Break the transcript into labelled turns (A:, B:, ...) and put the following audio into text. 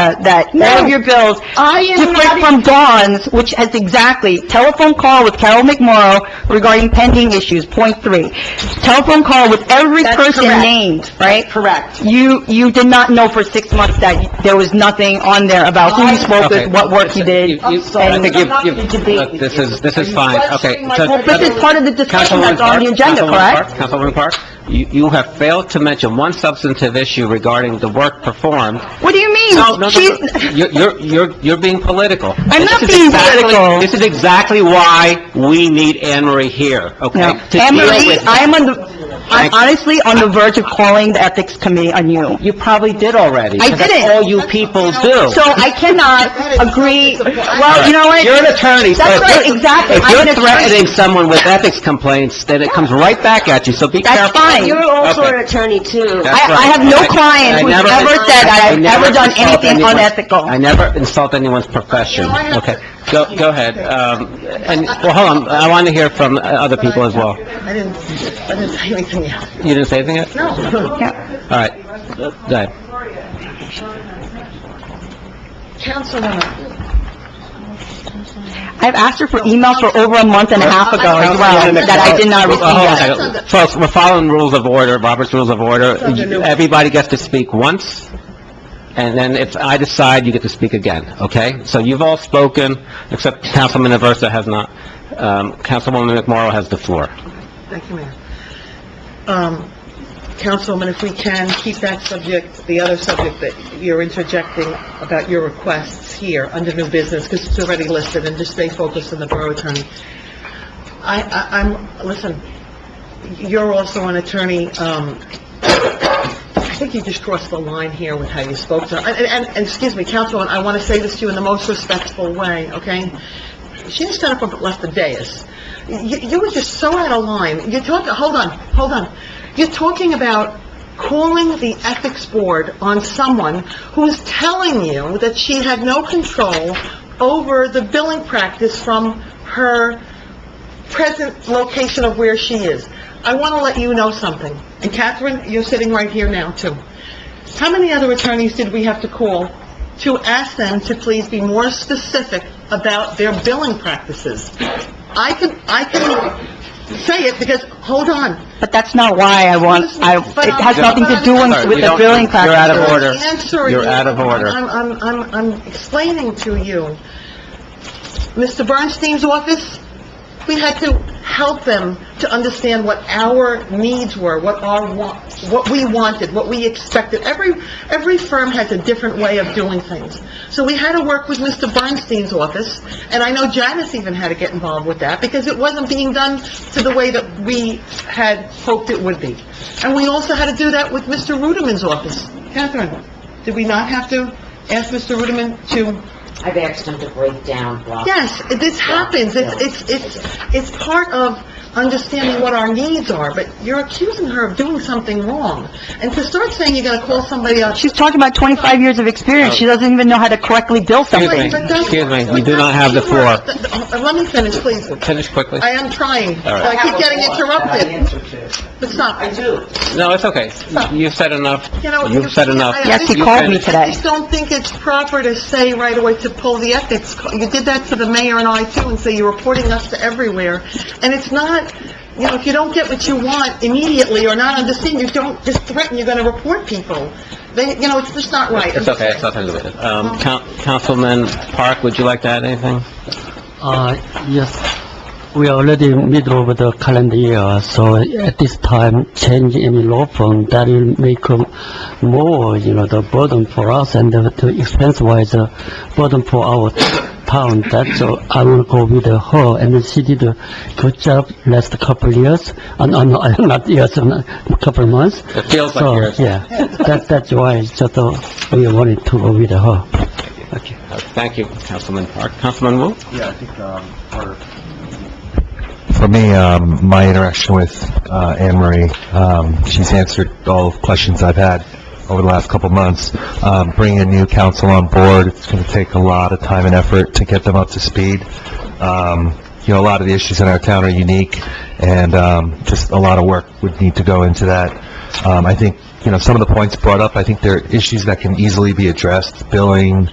A: Loretta uh, that all
B: No.
A: of your bills,
B: I am not-
A: different from Dawn's, which has exactly, telephone call with Carol McMorro regarding pending issues, point three. Telephone call with every
B: That's
A: person
B: correct.
A: named, right?
B: Correct.
A: You, you did not know for six months that there was nothing on there about who you spoke
C: Okay.
A: with, what work you did.
C: You- you- I think
B: I'm not
C: you've,
B: gonna
C: you've,
B: debate
C: look,
B: with
C: this
B: you.
C: is, this is
B: Are you
C: fine, okay.
B: questioning my
C: so-
B: credibility?
A: But this is part of the discussion that's on the
C: Councilwoman
A: agenda,
C: Park,
A: correct?
C: Councilwoman Park, Councilwoman Park, you, you have failed to mention one substantive issue regarding the work performed.
A: What do you mean?
C: No, no, no,
A: She's-
C: no, you're, you're- you're, you're being political.
A: I'm
C: And
A: not
C: this is
A: being
C: exactly-
A: political.
C: This is exactly why we need Anne Marie here, okay?
A: No.
C: To
A: Anne
C: deal
A: Marie,
C: with-
A: I am on the, I'm honestly on the verge of calling the Ethics Committee on you.
C: You probably did already.
A: I
C: 'cause that's
A: didn't.
C: all you people do.
A: So I cannot agree, well, you know what?
C: You're an attorney, so...
A: That's right, exactly.
C: If
A: I'm an
C: you're
A: attorney.
C: threatening someone with ethics complaints, then it comes right back at you, so be
A: That's
C: careful.
A: fine.
B: You're also
C: Okay.
B: an attorney, too.
C: That's
A: I, I
C: right.
A: have no
C: I- I
A: client who's
C: never-
A: ever said
C: I
A: I've
C: never
A: ever done
C: insult
A: anything
C: anyone's-
A: unethical.
C: I never insult anyone's profession, okay? Go, go ahead, um, and, well, hold on, I want to hear from uh, other people as well.
D: I didn't, I didn't say anything else.
C: You didn't say anything yet? No.
A: Yeah.
C: All right, go ahead.
D: Councilwoman,
A: I've asked her for emails for over a month and a half ago as well,
C: Councilwoman
A: that I did not
C: McMorro.
A: receive
C: Uh, hold on a
A: yet.
C: second. Folks, we're following rules of order, Robert's Rules of Order.
D: under new-
C: Everybody gets to speak once, and then if I decide, you get to speak again, okay? So you've all spoken, except Councilman Aversa has not. Um, Councilwoman McMorro has the floor.
D: thank you, Mayor. Um, Councilwoman, if we can, keep that subject, the other subject that you're interjecting about your requests here under new business, because it's already listed, and just stay focused on the borough attorney. I, I, I'm, listen, you're also an attorney, um, I think you just crossed the line here with how you spoke to her. And, and, and, excuse me, Councilwoman, I want to say this to you in the most respectful way, okay? She just got up and left the dais. You, you were just so out of line. You're talking, hold on, hold on. You're talking about calling the ethics board on someone who's telling you that she had no control over the billing practice from her present location of where she is. I want to let you know something. And Catherine, you're sitting right here now, too. How many other attorneys did we have to call to ask them to please be more specific about their billing practices? I can, I can say it because, hold on.
A: But that's not why I want, I, it has nothing to do
C: Sorry, we
A: with the
C: don't-
A: billing practice.
C: You're out of
D: I'm
C: order.
D: answering
C: You're
D: you.
C: out of order.
D: I'm, I'm, I'm, I'm explaining to you. Mr. Bernstein's office, we had to help them to understand what our needs were, what our wa, what we wanted, what we expected. Every, every firm has a different way of doing things. So we had to work with Mr. Bernstein's office, and I know Janice even had to get involved with that, because it wasn't being done to the way that we had hoped it would be. And we also had to do that with Mr. Ruderman's office. Catherine, did we not have to ask Mr. Ruderman to
E: I've asked him to break down blocks.
D: Yes, this happens. It's, it's, it's, it's part of understanding what our needs are, but you're accusing her of doing something wrong. And to start saying you're gonna call somebody else,
A: She's talking about 25 years of experience, she doesn't even know how to correctly bill
C: Excuse me.
A: something.
D: but that's...
C: Excuse me, you do not have the floor.
D: Let me finish, please.
C: Finish quickly.
D: I am trying,
C: All right.
D: but I keep getting interrupted.
E: Answer to.
D: But stop.
E: I do.
C: No, it's okay. You've said enough.
D: You know,
C: You've said enough.
D: I- I
A: Yes, he
C: You
A: called me
C: finished.
A: today.
D: I just don't think it's proper to say right away to pull the ethics. co- You did that to the mayor and I too, and say you're reporting us to everywhere. And it's not, you know, if you don't get what you want immediately or not understand, you don't just threaten, you're gonna report people. They, you know, it's just not right.
C: It's okay, it's nothing to do with it. Um, Coun- Councilman Park, would you like to add anything?
F: Uh, Yes. We are already middle of the calendar year, so at this time, change any law firm, that will make um, more, you know, the burden for us and the the expense-wise uh, burden for our town. That's, uh, I will go with her, and then she did a good job last couple years, uh, no, no, not years, uh, couple months.
C: It feels like
F: So,
C: yours.
F: Oh, Yeah, that, that's why, it's just, uh, we wanted to go with her. Okay.
C: Uh, Thank you, Councilman Park. Councilman Wu?
G: Yeah, I think, um, for... For me, um, my interaction with, uh, Anne Marie, um, she's answered all the questions I've had over the last couple of months. Um, bringing a new council on board, it's gonna take a lot of time and effort to get them up to speed. Um, you know, a lot of the issues in our town are unique, and, um, just a lot of work would need to go into that. Um, I think you know, some of the points brought up, I think there are issues that can easily be addressed, billing,